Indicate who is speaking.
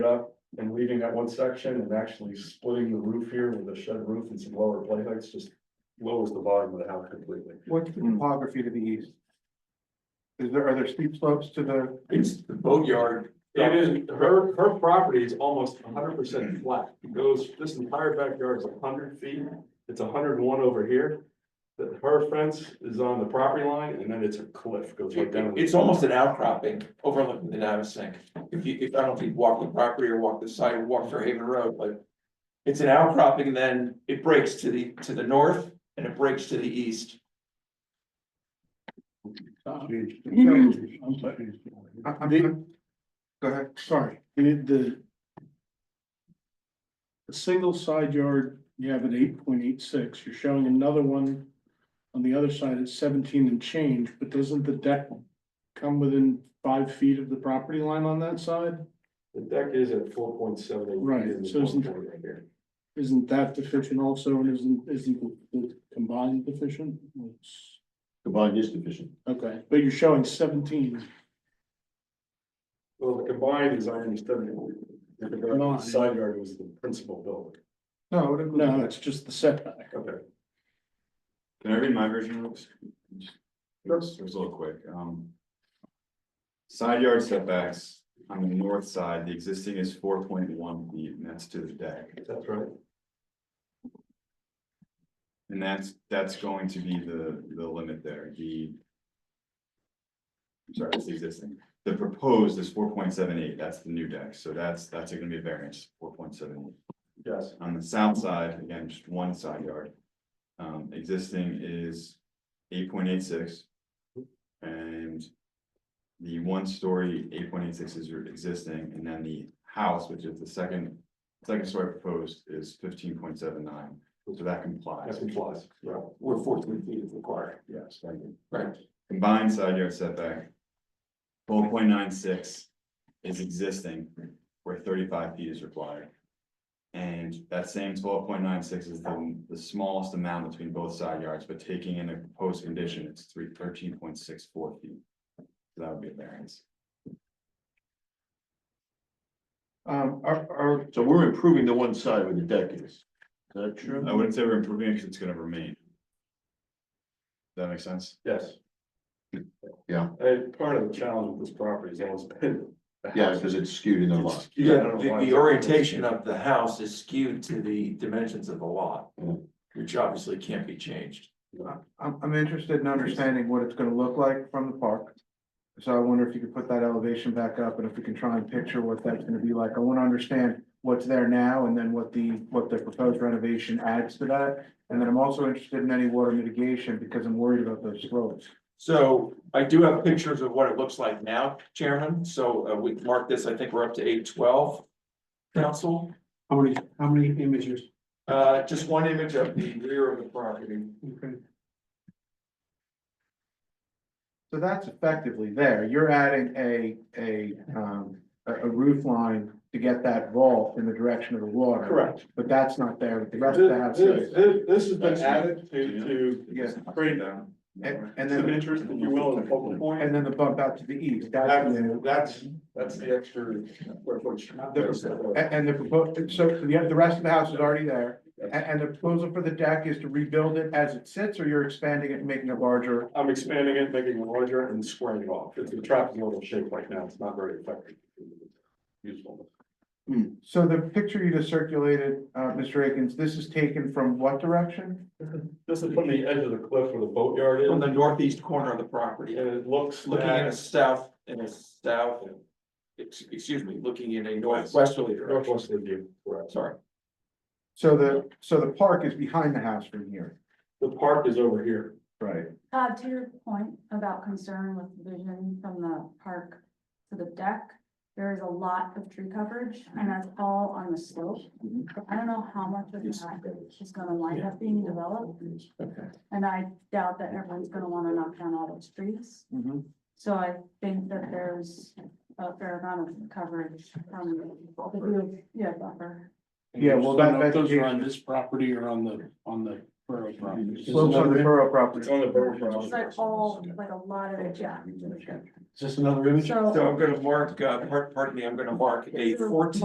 Speaker 1: it up and leaving that one section and actually splitting the roof here with a shed roof and some lower plate heights just lowers the volume of the house completely.
Speaker 2: What's the topography to the east? Is there, are there steep slopes to the,
Speaker 1: It's the boatyard. It is, her, her property is almost hundred percent flat. It Goes, this entire backyard is hundred feet. It's hundred and one over here. That her fence is on the property line and then it's a cliff goes right down.
Speaker 3: It's almost an outcropping overlooking the Navasink. If you, if I don't think walk the property or walk the side, walk through Haven Road, but. It's an outcropping and then it breaks to the, to the north and it breaks to the east.
Speaker 2: I- I'm, I'm- go ahead.
Speaker 4: Sorry, the, the. The single side yard, you have at eight point eight six, you're showing another one. On the other side at seventeen and change, but doesn't the deck come within five feet of the property line on that side?
Speaker 1: The deck is at four point seven.
Speaker 4: Right, so isn't-
Speaker 1: Right here.
Speaker 4: Isn't that deficient also, and isn't, isn't the- the combined deficient? It's-
Speaker 5: Combined is deficient.
Speaker 4: Okay, but you're showing seventeen,
Speaker 1: Well, the combined is on the
Speaker 4: Line.
Speaker 1: seventy. Side yard was the principal building.
Speaker 2: No, it-
Speaker 4: no, it's just the setback.
Speaker 1: Okay.
Speaker 5: Can I read my version of this? Yes. It was a little quick, um. Side yard setbacks on the north side, the existing is four point one feet, and that's to the deck.
Speaker 1: That's right.
Speaker 5: And that's, that's going to be the, the limit there, the. I'm Sorry, it's existing. The proposed is four point seven eight, that's the new deck, so that's, that's gonna be a variance, four point seven eight.
Speaker 1: Yes.
Speaker 5: On the south side, again, just one side yard. Um, existing is eight point eight six. And. The one story eight point eight six is your existing, and then the house, which is the second, second story proposed is fifteen point seven nine. So that complies.
Speaker 1: That complies, yeah.
Speaker 3: Where fourteen feet is required.
Speaker 5: Yes, thank you.
Speaker 3: Right.
Speaker 5: Combined side yard setback. Four point nine six is existing where thirty-five feet is required. And that same twelve point nine six is the, the smallest amount between both side yards, but taking in a proposed condition, it's three, thirteen point six four feet. So That would be a variance.
Speaker 2: um, are, are,
Speaker 6: So we're improving the one side where the deck is. Is that true?
Speaker 5: I wouldn't say we're improving it because it's gonna remain. Does that make sense?
Speaker 1: Yes.
Speaker 6: Yeah.
Speaker 1: And part of the challenge with this property has always been. the
Speaker 6: Yeah,
Speaker 1: house.
Speaker 6: because it's skewed in the lot.
Speaker 1: Yeah, I
Speaker 3: Yeah,
Speaker 1: don't know
Speaker 3: the,
Speaker 1: why.
Speaker 3: the orientation of the house is skewed to the dimensions of the lot,
Speaker 1: Mm.
Speaker 3: which obviously can't be changed.
Speaker 2: I'm, I'm interested in understanding what it's gonna look like from the park. So I wonder if you could put that elevation back up and if we can try and picture what that's gonna be like. I wanna understand what's there now and then what the, what the proposed renovation adds to that. And then I'm also interested in any water mitigation because I'm worried about those slopes.
Speaker 3: So I do have pictures of what it looks like now, Chairman, so uh, we marked this, I think we're up to eight twelve. Council,
Speaker 7: How many, how many images?
Speaker 3: uh, just one image of the rear of the property.
Speaker 7: Okay.
Speaker 2: So that's effectively there. You're adding a, a, um, a a roof line to get that vault in the direction of the water.
Speaker 1: Correct.
Speaker 2: But that's not there, but the
Speaker 1: This,
Speaker 2: rest of the house
Speaker 1: this-
Speaker 2: is.
Speaker 1: this- this has been added to,
Speaker 2: Yeah,
Speaker 1: Great.
Speaker 5: Down.
Speaker 2: and,
Speaker 1: to
Speaker 2: and
Speaker 1: some
Speaker 2: then,
Speaker 1: interest, if you will, in the public
Speaker 2: and
Speaker 1: point.
Speaker 2: then the bump out to the east, that's new.
Speaker 1: That's, that's, that's the extra square footage.
Speaker 2: A- And, the proposal, so the, the rest of the house is already there. And, and the proposal for the deck is to rebuild it as it sits, or you're expanding it and making it larger?
Speaker 1: I'm expanding it, making it larger and squaring it off. It's a trapezoidal shape right now. It's not very effective. Useful.
Speaker 2: So the picture you just circulated, uh, Mr. Akins, this is taken from what direction?
Speaker 1: This is from the edge of the cliff where the boatyard is,
Speaker 3: From
Speaker 1: and
Speaker 3: the northeast corner of the property,
Speaker 1: it looks
Speaker 3: looking at a
Speaker 1: at
Speaker 3: south, in a south. ex- Excuse me, looking in a northwesterly direction,
Speaker 1: northwest of you, correct.
Speaker 3: sorry,
Speaker 2: So the, so the park is behind the house from here.
Speaker 1: The park is over here.
Speaker 2: Right.
Speaker 8: Todd, Uh, to your point about concern with vision from the park to the deck, there is a lot of tree coverage and that's all on the slope. I don't know how much of that is gonna wind up being developed
Speaker 3: okay.
Speaker 8: and I doubt that everyone's gonna wanna knock down all those trees. So I think that there's a fair amount of coverage from the view, yeah, buffer.
Speaker 2: Yeah, well, that-
Speaker 4: Those are
Speaker 2: vegetation-
Speaker 4: On this property or on the, on the borough property?
Speaker 2: Slopes on the borough
Speaker 1: It's
Speaker 2: property.
Speaker 1: on the boat.
Speaker 8: It's like all, like a lot of it, yeah.
Speaker 4: Is this another image?
Speaker 3: So I'm gonna mark, uh, par- pardon me, I'm gonna mark a fourteen